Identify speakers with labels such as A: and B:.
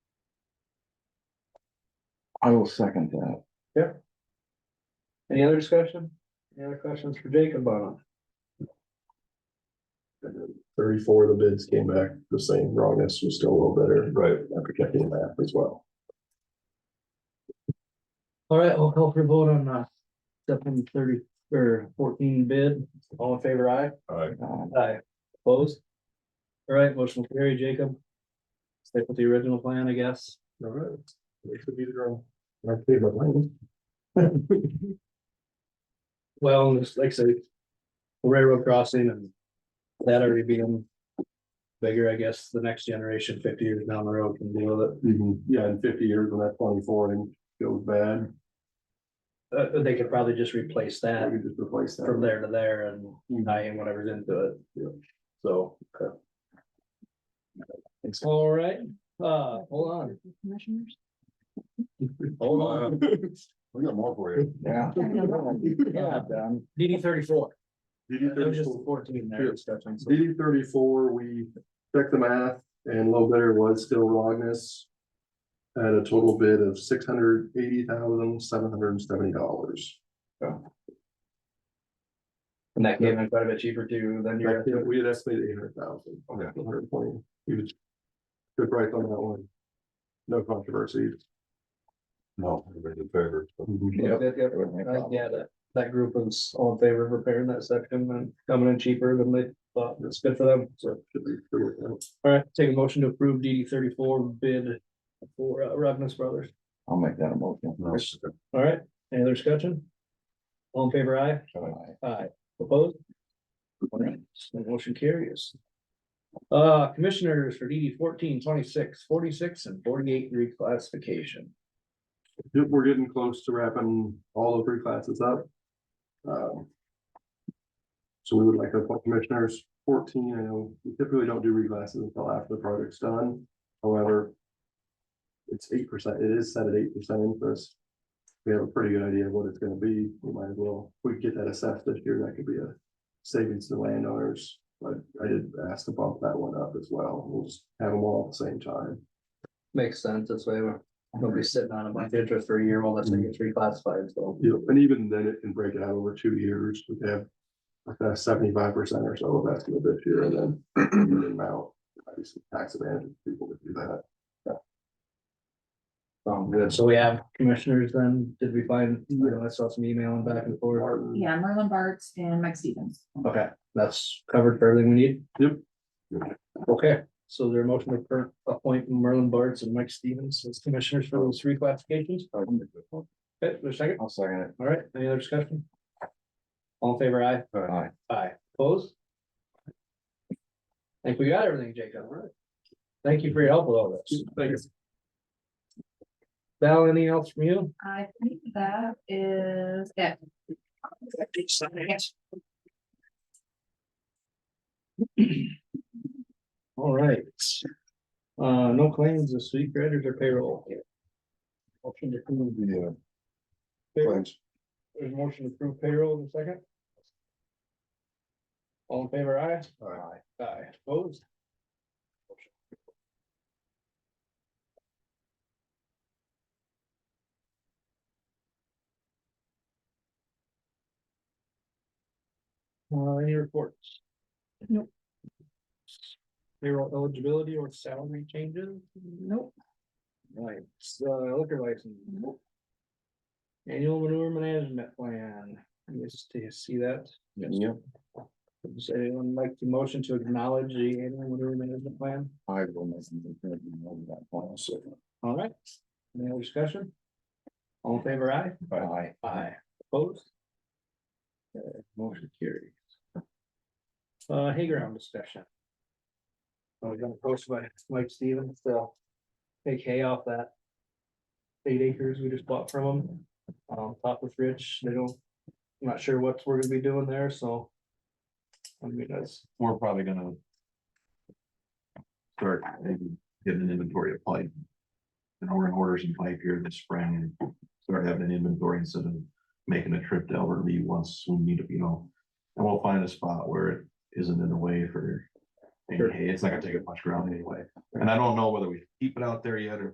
A: I will second that.
B: Any other discussion? Any other questions for Jacob on
C: Thirty-four of the bids came back the same, wrongness was still a little better. Right. After checking that as well.
B: it? All right, I'll call for a vote on uh seven thirty or fourteen bid. All in favor, aye?
C: Alright.
A: Uh,
B: Aye. Opposed? All right, motion will carry, Jacob. Stick with the original plan, I guess.
C: Alright. We should be the girl. My favorite lane.
B: Well, and it's like I said, railroad crossing and that already being bigger, I guess, the next generation fifty years down the road can deal with it.
C: Yeah, in fifty years when that twenty-four and goes bad,
B: Uh, they could probably just replace that.
C: we could just replace that.
B: from there to there and I am whatever's into it.
C: Yeah.
B: Hmm. So. okay. All right, uh, hold on,
D: Commissioners?
B: hold on,
C: We got more for you.
A: Yeah. Yeah, done.
B: DD thirty-four,
C: DD
B: there was just
C: 34.
B: fourteen there. discussion, so-
C: DD thirty-four, we checked the math and low bidder was still Rognus. At a total bid of six hundred eighty thousand, seven hundred and seventy dollars.
B: And that came in quite a bit cheaper too than your,
C: We had estimated eight hundred thousand. Okay. Hundred twenty, he was. Good price on that one. No controversy.
E: No, everybody's in favor.
B: yeah, yeah, yeah.
A: It would make
B: Uh,
A: problems.
B: yeah, that, that group was all in favor of repairing that section and coming in cheaper than they thought, it's good for them, so.
C: Should be good with that.
B: All right, take a motion to approve DD thirty-four bid for uh, Robbins Brothers.
A: I'll make that a motion.
B: All right, any other discussion? All in favor, aye?
A: Aye.
B: Aye. Opposed? All right, so the Motion carries. Uh, commissioners for DD 14, 26, 46, and forty-eight reclassification.
C: Yep, we're getting close to wrapping all the three classes up. Um, So we would like to appoint commissioners fourteen, I know we typically don't do reclasses until after the project's done, however. It's eight percent, it is set at eight percent interest. We have a pretty good idea of what it's gonna be, we might as well, if we get that assessed this year, that could be a savings to landowners. But I did ask to bump that one up as well, we'll just have them all at the same time.
B: Makes sense, that's why we're, we'll be sitting on a bunch of interest for a year while that thing gets reclassified, so.
C: you know, and even then it can break it out over two years, we have. Like seventy-five percent or so of estimate this year, and then the amount, obviously tax advantage, people would do that.
B: Um, good, so we have commissioners then, did we find, you know, I saw some emailing back and forth.
C: Martin,
D: Yeah, Merlin Bartz and Mike Stevens.
B: Okay, that's covered for everything we need?
C: Yep.
B: Okay, so their motion to per- appoint Merlin Bartz and Mike Stevens as commissioners for those three classifications. Okay, there's a second,
A: I'll second
B: all right, any other discussion? All in favor, aye?
A: it. Aye.
B: Aye. Opposed? I think we got everything, Jacob, all right? Thank you for your help with all this. Thanks. Val, anything else from you?
D: I think that is it.
B: All right. Uh, no claims this week, creditors or payroll? Motion to approve
A: Yeah,
B: payroll.
A: claims.
B: There's a motion to approve payroll in a second. All in favor, aye?
A: Aye.
B: Aye, opposed? Uh, any reports?
D: Nope.
B: Payroll eligibility or salary changes?
D: Nope,
B: Right, so liquor license. Annual manure management plan, let me just do you see that.
A: Yep,
B: Does anyone like the motion to acknowledge the annual manure management plan?
A: I will make them think we know that one second.
B: All right, any other discussion? All in favor, aye?
A: Aye.
B: Aye. Opposed? Okay, Motion carries. Uh, Hayground discussion. Uh, I was gonna post by Mike Stevens, so take hay off that eight acres we just bought from them. Um, talk with Rich, they don't, I'm not sure what we're gonna be doing there, so. I mean, that's,
E: We're probably gonna. Start maybe getting an inventory of pipe. And we're gonna order some pipe here this spring and start having an inventory instead of making a trip to Albert Lee once we need to, you know. And we'll find a spot where it isn't in the way for. any hay. it's not gonna take up much ground anyway, and I don't know whether we keep it out there yet or